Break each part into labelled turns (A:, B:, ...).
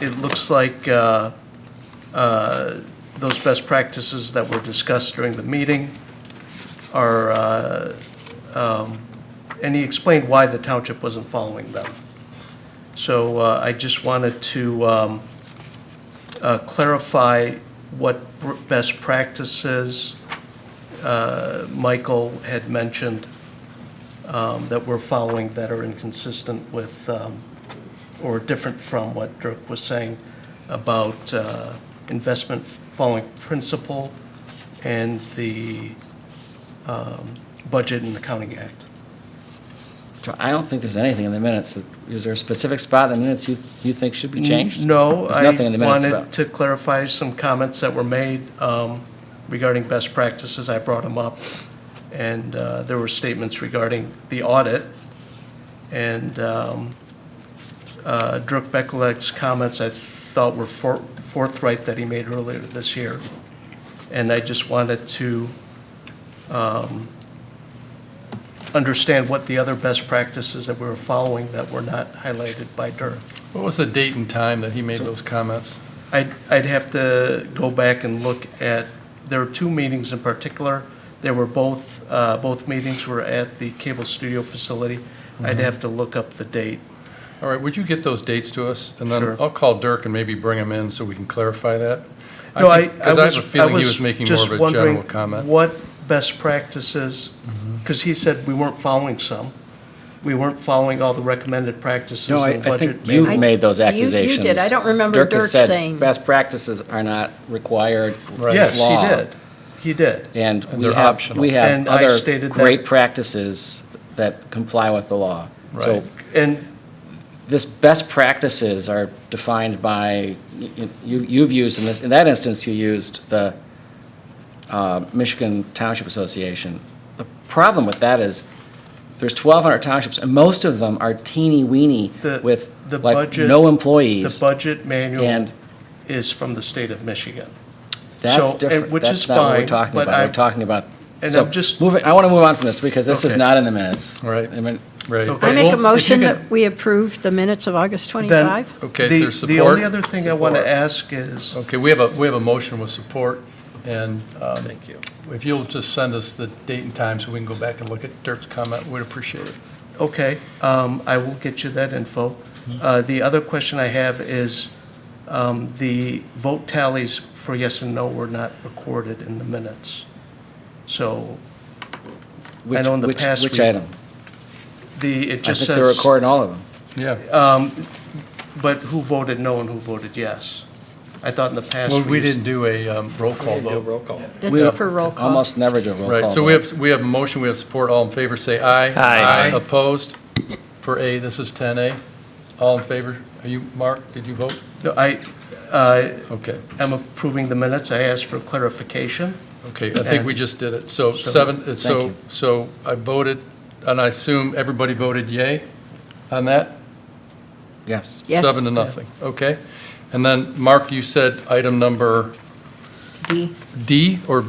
A: it looks like uh, uh, those best practices that were discussed during the meeting are, uh, um, and he explained why the township wasn't following them. So uh, I just wanted to um, uh, clarify what br- best practices uh, Michael had mentioned um, that we're following that are inconsistent with, um, or different from what Dirk was saying about uh, investment following principle and the um, Budget and Accounting Act.
B: So I don't think there's anything in the minutes. that- Is there a specific spot in the minutes you, you think should be changed?
A: No,
B: There's
A: I
B: nothing in the minutes
A: wanted
B: about.
A: to clarify some comments that were made um, regarding best practices. I brought them up, and uh, there were statements regarding the audit. And um, uh, Dirk Beckleck's comments, I thought were for- forthright that he made earlier this year. And I just wanted to um, understand what the other best practices that we were following that were not highlighted by Dirk.
C: What was the date and time that he made those comments?
A: I'd, I'd have to go back and look at, there were two meetings in particular. They were both, uh, both meetings were at the cable studio facility.
C: Mm-hmm.
A: I'd have to look up the date.
C: All right, would you get those dates to us? And then
A: Sure.
C: I'll call Dirk and maybe bring him in so we can clarify that.
A: No, I, I
C: Because I
A: was,
C: have a
A: I
C: feeling he
A: was
C: was making more
A: just
C: of a
A: wondering
C: general comment. Mm-hmm.
A: what best practices, because he said we weren't following some. We weren't following all the recommended practices
B: No, I,
A: in
B: I
A: budget.
B: think you've
A: management.
B: made those
D: You- you did.
B: accusations.
D: I don't remember
B: has
D: Dirk
B: said
D: saying-
B: Best practices are not required law.
A: Yes, he did. He did.
B: And
C: And
B: we
C: they're
B: have,
C: optional.
B: we have
A: And I
B: other
A: stated that-
B: great practices that comply with the law. So
C: Right.
A: And
B: this best practices are defined by, y- y- you, you've used, in this, in that instance, you used the uh, Michigan Township Association. The problem with that is, there's 1,200 townships, and most of them are teeny-weeny
A: The-
B: with,
A: the
B: like,
A: budget-
B: no
A: the
B: employees.
A: budget manual
B: And-
A: is from the state of Michigan.
B: That's
A: so,
B: different.
A: and- which is
B: That's not what we're
A: fine,
B: talking
A: but
B: about. We're
A: I'm-
B: talking about,
A: and
B: so,
A: I'm just-
B: moving, I want to move on from this, because this is
A: Okay.
B: not in the minutes.
C: All right.
B: I mean,
C: Right.
A: Okay.
D: I
C: Well,
D: make
C: if
D: a
C: you
D: motion
C: could-
D: that we approve the minutes of August
A: Then-
D: 25.
C: Okay, is
A: The-
C: there
A: The only
C: support?
A: other thing I want to
C: Support.
A: ask is,
C: Okay, we have a, we have a motion with support, and um, if you'll just send us the date and time so we can go back and look at Dirk's comment, we'd appreciate it.
A: okay, um, I will get you that info.
C: Mm-hmm.
A: Uh, The other question I have is, um, the vote tallies for yes and no were not recorded in the minutes. So
B: which-
A: know in the
B: which-
A: past
B: Which
A: we-
B: item?
A: the, it
B: I
A: just
B: think they're
A: says, um,
B: recording all of them.
C: Yeah.
A: but who voted no and who voted yes? I thought in the past.
C: Well, we
A: used-
C: didn't do a um, roll call vote.
B: We
D: It's for roll
A: Uh-huh.
D: call.
B: Almost never do a roll call.
C: Right, so we
B: vote.
C: have, we have a motion, we have support, all in favor, say aye.
E: Aye.
C: Opposed? For A, this is 10A. All in favor? Are you, Mark, did you vote?
A: No, I, uh,
C: Okay,
A: am approving the minutes. I asked for clarification.
C: okay, I think we just did it. So
A: So-
C: seven, it's so,
B: Thank
C: so I voted, and I assume everybody voted yay on that?
B: Yes.
D: Yes.
C: Seven to nothing, okay. And then, Mark, you said item number
D: D.
C: D or,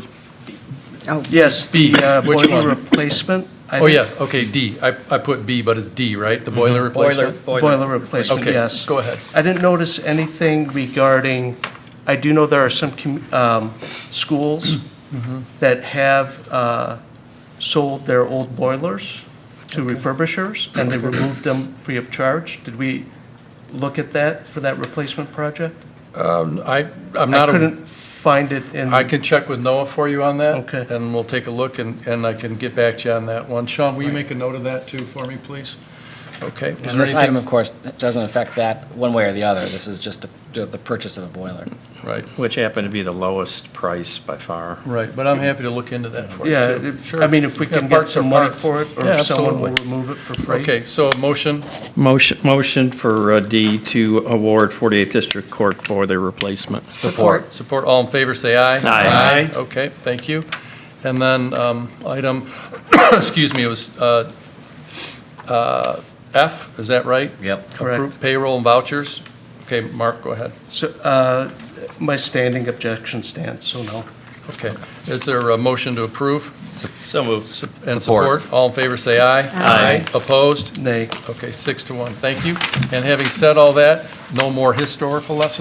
D: Oh,
A: Yes, the
C: B,
A: uh,
C: which
A: boiler
C: one?
A: replacement. I
C: oh
A: didn't-
C: yeah, okay, D. I, I put B, but it's D, right? The boiler replacement?
A: Boiler replacement,
C: Okay,
A: yes.
C: go ahead.
A: I didn't notice anything regarding, I do know there are some commu- um, schools
C: Mm-hmm.
A: that have uh, sold their old boilers to refurbishers, and they removed them free of charge. Did we look at that for that replacement project?
C: Um, I, I'm
A: I
C: not. a-
A: couldn't find it in,
C: I can check with Noah for you on that.
A: Okay.
C: And we'll take a look, and, and I can get back to you on that one. Sean, will you make a note of that too for me, please? Okay. Is there
B: And this item,
C: anything-
B: of course, doesn't affect that one way or the other. This is just the- the purchase of a boiler.
C: Right,
E: Which happened to be the lowest price by far.
C: right, but I'm happy to look into that for you.
A: yeah,
C: too.
A: if-
C: Sure.
A: I mean, if we
C: Yeah,
A: can get
C: parts are
A: some money
C: parts.
A: for it, or
C: Yeah,
A: if someone will
C: absolutely.
A: remove it for free.
C: Okay, so a motion,
E: Motion, motion for uh, D to award 48th District Court boiler replacement.
D: Support.
C: support, all in favor, say aye.
E: Aye.
C: Okay, thank you. And then, um, item, excuse me, it was, uh, uh, F, is that right?
F: Yep.
A: Correct.
C: Approve Payroll and vouchers. Okay, Mark, go ahead.
A: So, uh, my standing objection stands, so no.
C: Okay. Is there a motion to approve?
E: So moved.
C: and support? All in favor, say aye.
E: Aye.
C: Opposed?
A: Nay.
C: Okay, six to one. Thank you. And having said all that, no more historical lessons?